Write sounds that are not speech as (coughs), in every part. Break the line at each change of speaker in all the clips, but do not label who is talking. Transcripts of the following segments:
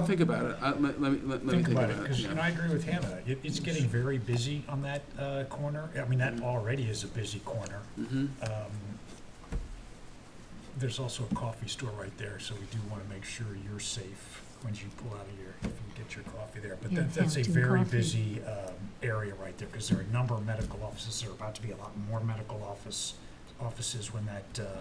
I'll think about it. I- Let let me, let let me
Think about it, because,
yeah.
and I agree with Hannah, it, it's getting very busy on that, uh, corner, I mean, that already is a busy corner.
Mhm.
Um, There's also a coffee store right there, so we do wanna make sure you're safe when you pull out of your, if you get your coffee there. But
Yeah,
that, that's a
Hampton
very
Coffee.
busy, um, area right there, cause there are a number of medical offices, there are about to be a lot more medical office, offices when that, uh,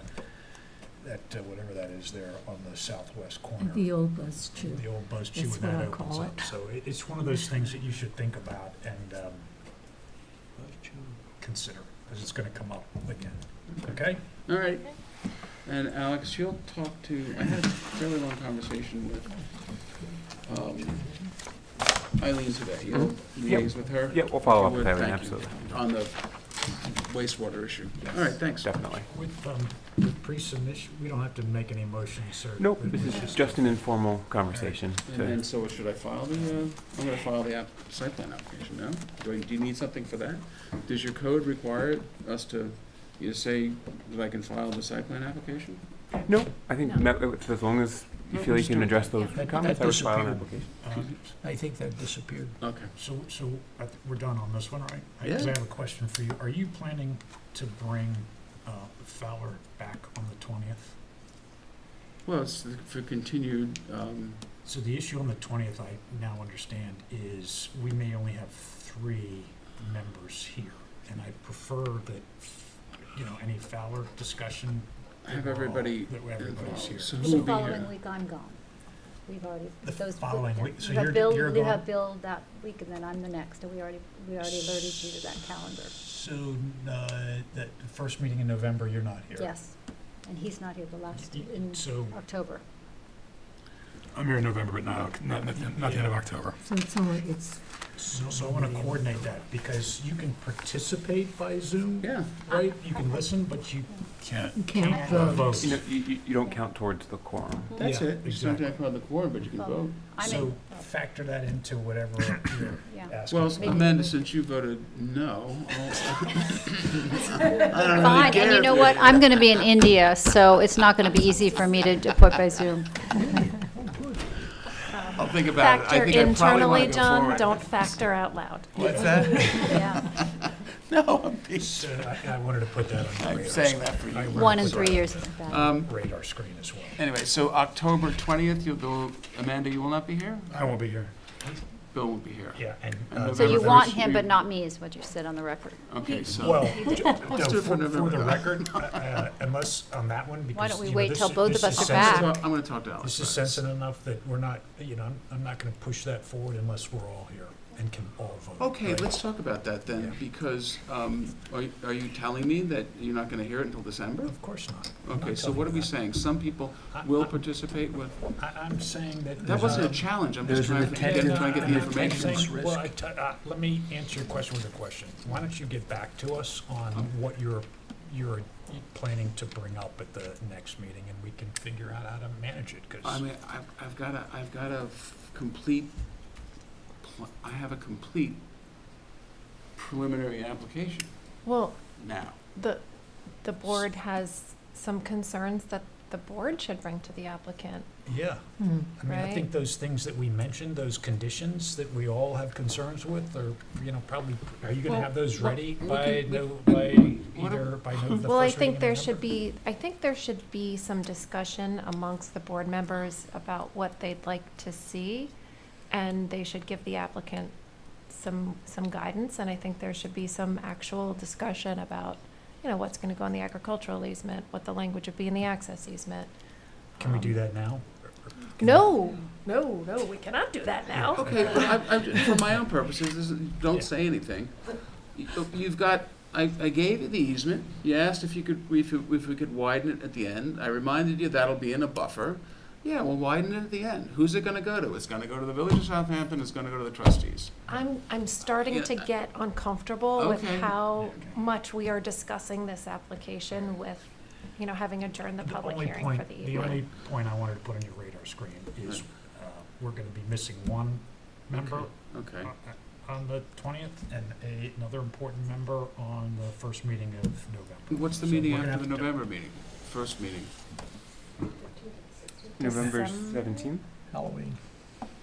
that, uh, whatever that is there on the southwest corner.
The old bus too.
The old buzz chew
That's
when that
what I
opens
call
up. So it, it's one of those things that you should think about and, um, consider, because it's gonna come up again,
Mm-hmm.
okay?
All right. And Alex, you'll talk to, I had a fairly long conversation with um, Eileen today. You'll liaise with her?
Yeah, we'll follow up
You
with
would,
Eileen,
thank you.
absolutely,
On the wastewater issue. All right, thanks.
definitely.
With, um, with pre-submission, we don't have to make any motions, sir.
Nope, this is just an informal conversation.
And
to-
then, so should I file the, uh, I'm gonna file the app, site plan application now. Do I- do you need something for that? Does your code require us to, you say that I can file the site plan application?
No, I think
No.
me- if- as long as you
No,
feel you
just do
can
it.
address those
Yeah.
comments, I
That
would file an
disappeared.
application.
Um,
I think that disappeared.
Okay.
So, so I th- we're done on this one, right? Because
Yeah.
I have a question for you. Are you planning to bring uh, Fowler back on the twentieth?
Well, it's for continued, um,
So the issue on the twentieth, I now understand, is we may only have three members here. And I prefer that, you know, any Fowler discussion. that
have
we're all-
everybody
That everybody's here.
involved. So who
The
will be
following
here?
week, I'm gone. We've already,
The
those.
following week, so
We
you're-
have Bill,
you're
we have
gone?
Bill that week, and then I'm the next, and we already, we already alerted you to that calendar.
So, uh, that first meeting in November, you're not here?
Yes, and he's not here the last,
Y-
in
So,
October.
I'm here in November, but not, not, not not the end of October.
So it's only, it's,
so so I want to coordinate that, because you can participate by Zoom,
Yeah,
right? You can listen, but you
Can't.
you
can't
can't vote.
vote.
You know, you, you- you don't count towards the quorum.
that's
Yeah,
it. You don't
exactly.
have to have the quorum, but you can
Well,
vote.
I'm
So
in,
factor that into whatever you're
yeah.
(coughs)
asking.
Well,
Maybe-
Amanda, since you voted no,
Uh,
I'll.
Fine, and you know what? I'm gonna be in India, so it's not gonna be easy for me to d- put by Zoom.
I'll think about it. I
Factor
think I probably wanna
internally,
go
John,
forward.
don't factor out loud.
What's that?
Yeah,
No, I'm being-
So uh, (laughs) I I wanted to put that on your
I'm
radar.
saying that for
I
you.
wanted
one
to
in
put
three
that
years isn't
Uh,
bad.
Um,
Radar screen as well.
anyway, so October twentieth, you'll go, Amanda, you will not be here?
I won't be here.
Bill won't be here.
Yeah, and.
And
uh,
So you
November
want
first,
him,
you-
but not me, is what you said on the record.
Okay, so.
Well, d-
(laughs)
no,
do it for
for for
November.
the record, uh, uh, unless on that one, because.
Why don't we
you know,
wait
this
till
is-
both of
this
us
is
are back?
sensitive.
Well, I'm gonna talk to Alex.
This is
about
sensitive enough that we're not, you know, I'm, I'm not gonna push that forward unless we're all here and can all vote.
Okay,
right?
let's talk about that then,
Yeah.
because, um, are, y- are you telling me that you're not gonna hear it until December?
Of course not. I'm not
Okay, so
telling
what are
you
we
that.
saying? Some people
I-
will
I-
participate with,
I, I'm saying that.
that wasn't a
um,
challenge, I'm just
There's an
trying to get,
attendance-
trying to get
I'm
the
not
information.
saying-
risk.
Well, I t- uh, let me answer your question with a question. Why don't you get back to us on
Um.
what you're, you're planning to bring up at the next meeting, and we can figure out how to manage it, because.
I mean, I've, I've got a, I've got a f- complete, pl- I have a complete preliminary application
Well,
now.
the, the board has some concerns that the board should bring to the applicant.
Yeah,
Hmm.
I mean, I
Right.
think those things that we mentioned, those conditions that we all have concerns with, are, you know, probably, are you gonna
Well,
have those
well,
ready
we
by,
can-
no,
we-
by
why don't-
either, by no, the first
Well, I
reading
think
in
there
November?
should be, I think there should be some discussion amongst the board members about what they'd like to see, and they should give the applicant some, some guidance, and I think there should be some actual discussion about, you know, what's gonna go in the agricultural easement, what the language would be in the access easement.
Can we do
Um,
that now?
No, no, no, we cannot do that now.
Okay, but I, I, for my own purposes, this is- don't say anything. You- You've got, I, I gave you the easement, you asked if you could, if, you- if we could widen it at the end, I reminded you that'll be in a buffer. Yeah, well, widen it at the end, who's it gonna go to? It's gonna go to the Village of Southampton, it's gonna go to the trustees.
I'm, I'm starting to
Yeah.
get uncomfortable with
Okay.
how
Okay.
much we are discussing this application with, you know, having adjourned the
The
public
only
hearing for
point-
the
The only
evening.
point I wanted to put on your radar screen is, uh, we're gonna be missing one member
Hmm. Okay,
on- uh, on the twentieth, and a- another important member on the first meeting of November.
what's the
So
meeting
we're gonna
after the
have to-
November meeting, first meeting?
November
Some-
seventeenth?
Halloween.